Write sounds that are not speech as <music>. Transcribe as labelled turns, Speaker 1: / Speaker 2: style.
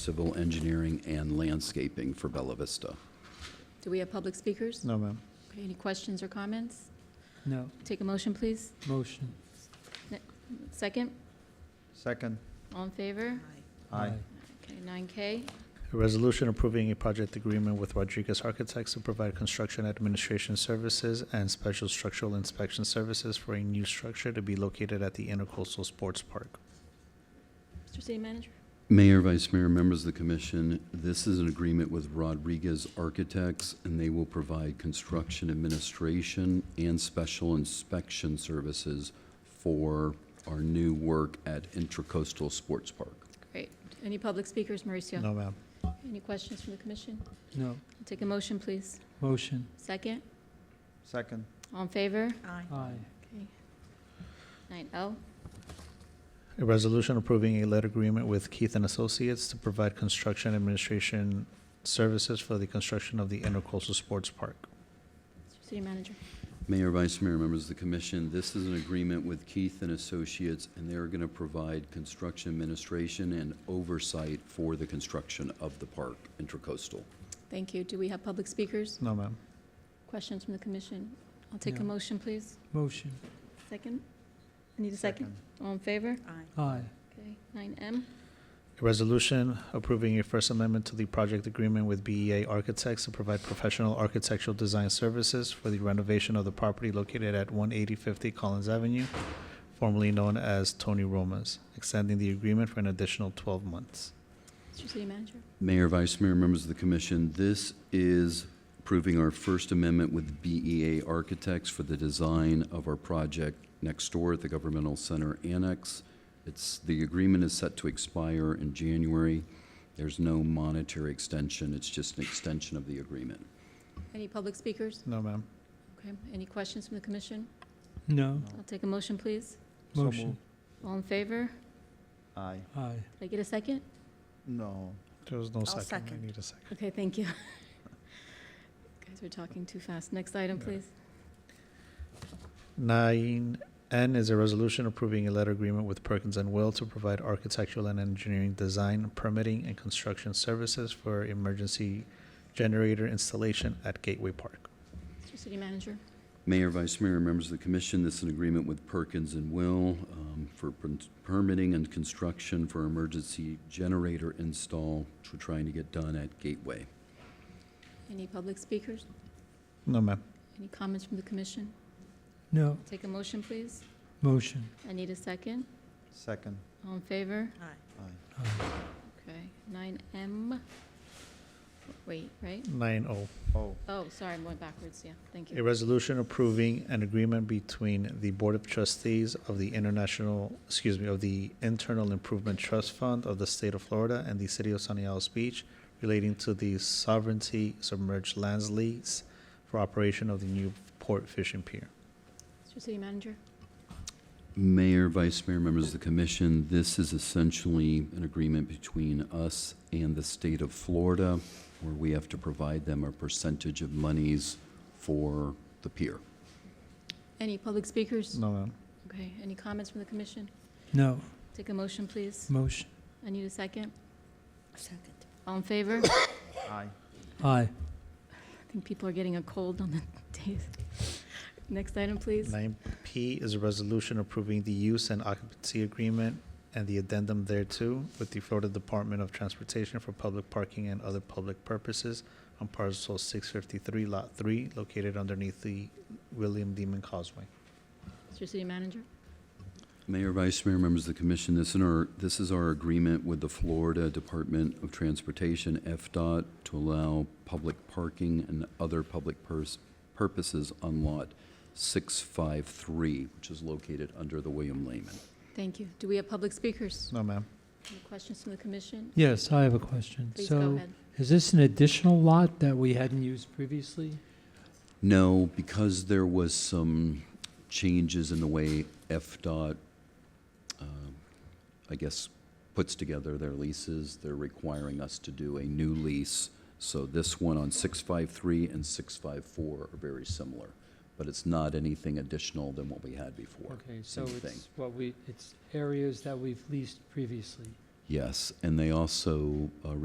Speaker 1: civil engineering and landscaping for Bella Vista.
Speaker 2: Do we have public speakers?
Speaker 3: No, ma'am.
Speaker 2: Okay, Any questions or comments?
Speaker 4: No,
Speaker 2: Take a motion, please.
Speaker 4: motion.
Speaker 2: Second,
Speaker 3: Second.
Speaker 2: all in favor?
Speaker 3: Aye.
Speaker 2: Okay, 9K.
Speaker 3: A resolution approving a project agreement with Rodriguez Architects to provide construction administration services and special structural inspection services for a new structure to be located at the Intercoastal Sports Park.
Speaker 2: Mr. City Manager?
Speaker 1: Mayor, Vice Mayor, members of the commission, this is an agreement with Rodriguez Architects, and they will provide construction administration and special inspection services for our new work at Intracoastal Sports Park.
Speaker 2: Great. Any public speakers, Mauricio?
Speaker 3: No, ma'am.
Speaker 2: Any questions from the commission?
Speaker 4: No,
Speaker 2: Take a motion, please.
Speaker 4: motion.
Speaker 2: Second,
Speaker 3: Second.
Speaker 2: all in favor?
Speaker 4: Aye.
Speaker 2: Okay. 9L,
Speaker 3: A resolution approving a lead agreement with Keith and Associates to provide construction administration services for the construction of the Intercoastal Sports Park.
Speaker 2: Mr. City Manager.
Speaker 1: Mayor, Vice Mayor, members of the commission, this is an agreement with Keith and Associates, and they're going to provide construction administration and oversight for the construction of the park, Intracoastal.
Speaker 2: Thank you. Do we have public speakers?
Speaker 3: No, ma'am.
Speaker 2: Questions from the commission? I'll take a
Speaker 4: No.
Speaker 2: motion, please.
Speaker 4: Motion.
Speaker 2: Second? I need a second. Ah. All in favor?
Speaker 4: Aye.
Speaker 2: Okay, 9M,
Speaker 3: A resolution approving a First Amendment to the project agreement with BEA Architects to provide professional architectural design services for the renovation of the property located at 18050 Collins Avenue, formerly known as Tony Roma's, extending the agreement for an additional 12 months.
Speaker 2: Mr. City Manager.
Speaker 1: Mayor, Vice Mayor, members of the commission, this is approving our First Amendment with BEA Architects for the design of our project next door at the Governmental Center Annex. It's, the agreement is set to expire in January. There's no monetary extension, it's just an extension of the agreement.
Speaker 2: Any public speakers?
Speaker 3: No, ma'am.
Speaker 2: Okay, any questions from the commission?
Speaker 4: No,
Speaker 2: I'll take a motion, please.
Speaker 3: So
Speaker 4: motion.
Speaker 3: moved.
Speaker 2: All in favor?
Speaker 5: Aye.
Speaker 4: Aye.
Speaker 2: Did I get a second?
Speaker 5: No.
Speaker 3: There was no second.
Speaker 5: second.
Speaker 3: I need a second.
Speaker 2: Okay, thank you. <laughs> You Guys are talking too fast. Next item,
Speaker 3: Yeah.
Speaker 2: please.
Speaker 3: Nine N is a resolution approving a letter agreement with Perkins and Will to provide architectural and engineering design, permitting, and construction services for emergency generator installation at Gateway Park.
Speaker 2: Mr. City Manager.
Speaker 1: Mayor, Vice Mayor, and members of the commission, this is an agreement with Perkins and Will um, for per- permitting and construction for emergency generator install, which we're trying to get done at Gateway.
Speaker 2: Any public speakers?
Speaker 3: No, ma'am.
Speaker 2: Any comments from the commission?
Speaker 4: No,
Speaker 2: I'll Take a motion, please.
Speaker 4: motion.
Speaker 2: I need a second.
Speaker 5: Second.
Speaker 2: All in favor?
Speaker 5: Aye.
Speaker 4: Aye.
Speaker 2: Okay, nine M. Wait, right?
Speaker 3: Nine O,
Speaker 5: Oh,
Speaker 2: Oh, sorry, I'm going backwards. Yeah, thank
Speaker 3: a
Speaker 2: you.
Speaker 3: resolution approving an agreement between the Board of Trustees of the International, excuse me, of the Internal Improvement Trust Fund of the State of Florida and the City of Sunny Isles Beach relating to the sovereignty submerged lands lease for operation of the new port fishing pier.
Speaker 2: Mr. City Manager.
Speaker 1: Mayor, Vice Mayor, members of the commission, this is essentially an agreement between us and the state of Florida, where we have to provide them a percentage of monies for the pier.
Speaker 2: Any public speakers?
Speaker 3: No, ma'am.
Speaker 2: Okay, any comments from the commission?
Speaker 4: No,
Speaker 2: Take a motion, please.
Speaker 4: motion.
Speaker 2: I need a second. Second. All in favor?
Speaker 5: aye.
Speaker 4: Aye.
Speaker 2: I think people are getting a cold on the <laughs> days. Next item, please.
Speaker 3: Nine P is a resolution approving the use and occupancy agreement and the addendum thereto with the Florida Department of Transportation for public parking and other public purposes on parcel six fifty-three, lot three, located underneath the William Demon Causeway.
Speaker 2: Mr. City Manager,
Speaker 1: Mayor, Vice Mayor, members of the commission, this in our, this is our agreement with the Florida Department of Transportation, FDOT, to allow public parking and other public pers- purposes on lot 653, which is located under the William Lehman.
Speaker 2: thank you. Do we have public speakers?
Speaker 3: No, ma'am.
Speaker 2: Any questions from the commission?
Speaker 4: Yes, I have a question.
Speaker 2: Please go
Speaker 4: So
Speaker 2: ahead.
Speaker 4: is this an additional lot that we hadn't used previously?
Speaker 1: No, because there was some changes in the way FDOT, um, I guess, puts together their leases. They're requiring us to do a new lease. So this one on 653 and 654 are very similar, but it's not anything additional than what we had before.
Speaker 4: Okay, so
Speaker 1: Same thing.
Speaker 4: it's what we, it's areas that we've leased previously.
Speaker 1: Yes, and they also uh,